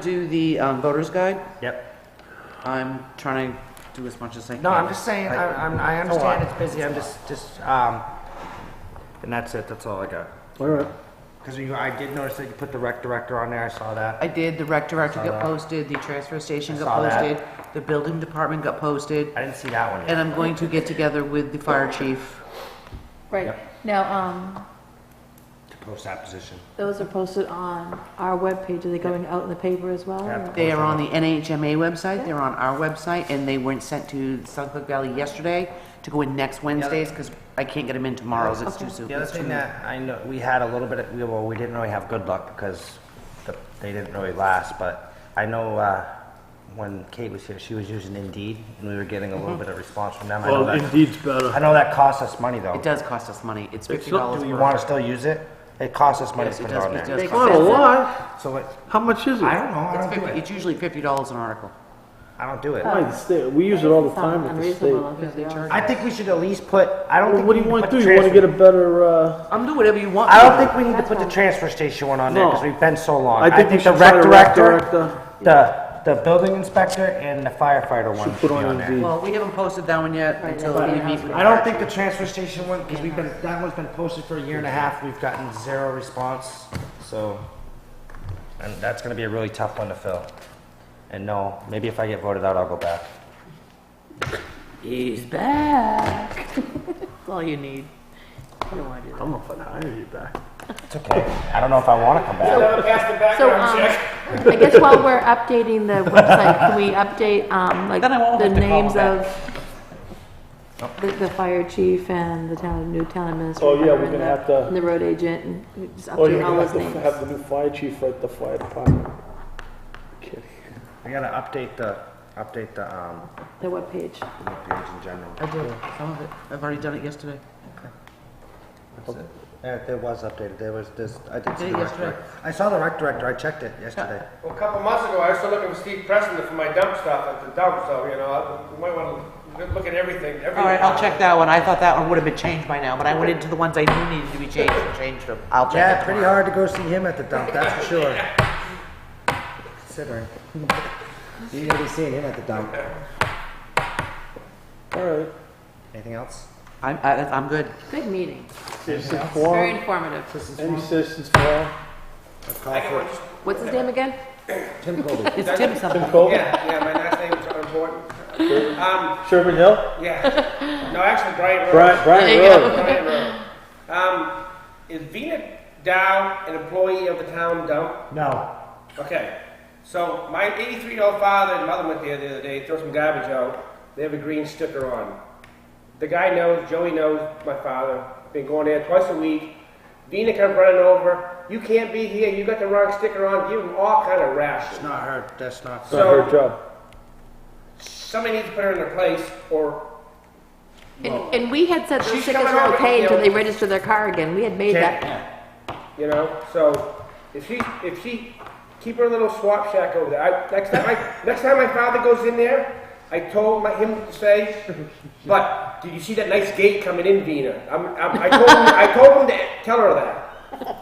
do the um, voter's guide. Yep. I'm trying to do as much as I can. No, I'm just saying, I, I'm, I a lot. understand it's busy, I'm just, just, um, and that's it, that's all I got. All right, Because you, I did notice that you put the rec director on there, I saw that. I did, the rec director that. got posted, the transfer station got saw that. posted, the building department got posted, I didn't see that one and yet. I'm going to get together with the fire chief. Right, Yep. now, um, To post that position. those are posted on our webpage, are they going out in the paper as well? Yeah. They are on the NHMA website, they're on our website, and they weren't sent to Sunset Valley yesterday to go in next Wednesdays, because I can't get them in tomorrow's, it's too Okay. soon. The other it's too- thing that I know, we had a little bit, of- we, well, we didn't really have good luck because the, they didn't really last, but I know, uh, when Kate was here, she was using Indeed, and we were getting a little bit of response from them. I know well, uh, that, Indeed's I better. know that costs us money, though. It does cost us money, it's fifty not- dollars. Do you want to still use it? It costs us money Yes, to it put it does, on it there. does They- Not a lot, So it, how much is I it? don't know, I don't do it. It's usually fifty dollars an article. I don't do it. Why, the state- We use it all the time at the state. Unreasonable, because they are- I think we should at least put, I don't Well, think. What we do you need want to put do? the You want to transfer- get a better, uh, I'm doing whatever you want. I don't think we need to put the fine. transfer station one on there because No. we've been so long. I think we the should try rec the rec director, director. the, the building inspector and the firefighter one should put be on on there. Indeed. Well, we haven't posted that one yet Right, until that's we fine. meet with. I don't think the transfer station one, because we've been, that one's been posted for a year and a half. We've gotten zero response, so. And that's gonna be a really tough one to fill. And no, maybe if I get voted out, I'll go back. He's back. That's all you need. You don't wanna do I'm not gonna hire you back. It's okay. I don't know if I wanna come back. that. So, um, I guess while we're updating the website, can we update, um, like, Then I won't the have to call names back. Oh. of the, the fire chief and the town, new town administrator? Oh, yeah, we're and gonna the- have to- And the road agent, and just Or you're update all gonna Oh, those have to names. have the new fire chief write the fire department. Kidding. We gotta update the, update the, um, The webpage. the page in general. I did, some of it, I've already done it yesterday. That's it. There, there was updated, there was this, I did Did see it the rec yesterday. director. I saw the rec director, I checked it yesterday. Well, a couple months ago, I was still looking with Steve Preston for my dump stuff at the dump, so, you know, I- you might want to look at everything, every... All right, I'll check that one, I thought that one would have been changed by now, but I went into the ones I knew needed to be changed and changed them. I'll check Yeah, it pretty tomorrow. hard to go see him at the dump, that's for sure. Considering. You're gonna be seeing him at the dump. All right. Anything else? I'm, I- I'm good. Big meeting. Citizens Very forum, informative. any citizens forum? A call for What's his name again? Tim Colby. It's Tim something. Tim Colvin, Yeah, yeah, my last name is important. Um, Sherman Hill, yeah, no, actually, Brian Rose. Brian, Brian There you go. Road. Brian Rose. Um, is Vina Dow an employee of the town dump? No. Okay, so my 83 year old father and mother went there the other day, throw some garbage out. They have a green sticker on. The guy knows, Joey knows my father, been going there twice a week. Vina comes running over, you can't be here, you got the wrong sticker on, give him all kind of It's rations. not her, that's not. Not her job. Somebody needs to put her in her place, or And, and we had said those She's tickets coming were over okay here. until they registered their car again. We had made Can't- that. You know, so if she if she keep her little swap shack over there. I, next time I next time my father goes in there, I told my, him to say, but did you see that nice gate coming in, Vina? I'm, I'm, I told him I told him to tell her that.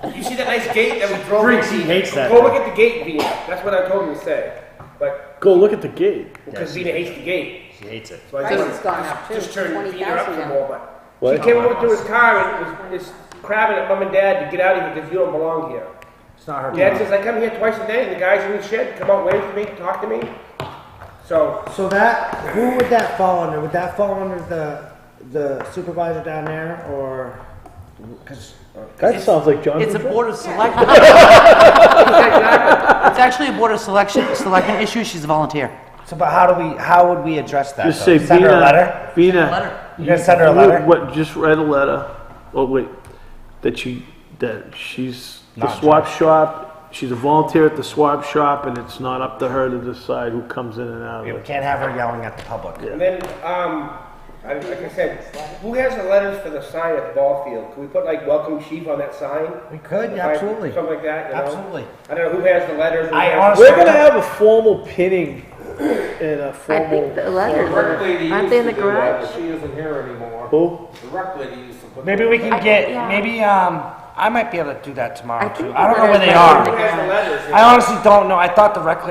Did you see that nice gate that we drove? Freaks, in? he hates that Go thing. look at the gate, Vina. That's what I told him to say. But Go look at the gate. because she Vina hates the gate, She hates it. so I Price just, has gone up too. just turned Vina up 20,000 some now. more. But What? she came over to his car and was, was crabbing at mom and dad to get out of here because you don't belong here. It's not her Dad job. says I come here twice a day, and the guys in the shed come out, wait for me, talk to me. So So that, who would that fall under? Would that fall under the, the supervisor down there or? Cause. That sounds like John. It's a Boudreaux. board of selection. It's actually a board of selection, selection issue, she's a volunteer. So, but how do we, how would we address that? Just though? say Send her a letter? Vina, Vina. Letter. You gonna send her a letter? What, just write a letter, oh wait, that she, that she's, the Not swap shop, she's a volunteer at the swap shop, and it's not up to her to decide who comes in and out Yeah, of We it. can't have her yelling at the public. and then, um, I, like I said, who has the letters for the sign at the ball field? Can we put like "Welcome Chief" on that sign? We could, If I- absolutely. Something like that. You know? Absolutely. I don't know who has the letters. who I has- honestly- We're gonna have a formal pinning and a I think formal, the letters are, aren't they in the garage? She isn't here anymore. who? The rec lady used to put. Maybe we can I- get, yeah. maybe, um, I might be able to do that tomorrow I too. think I don't know where we're they gonna- Who are. has the letters? you I honestly don't know. I thought the rec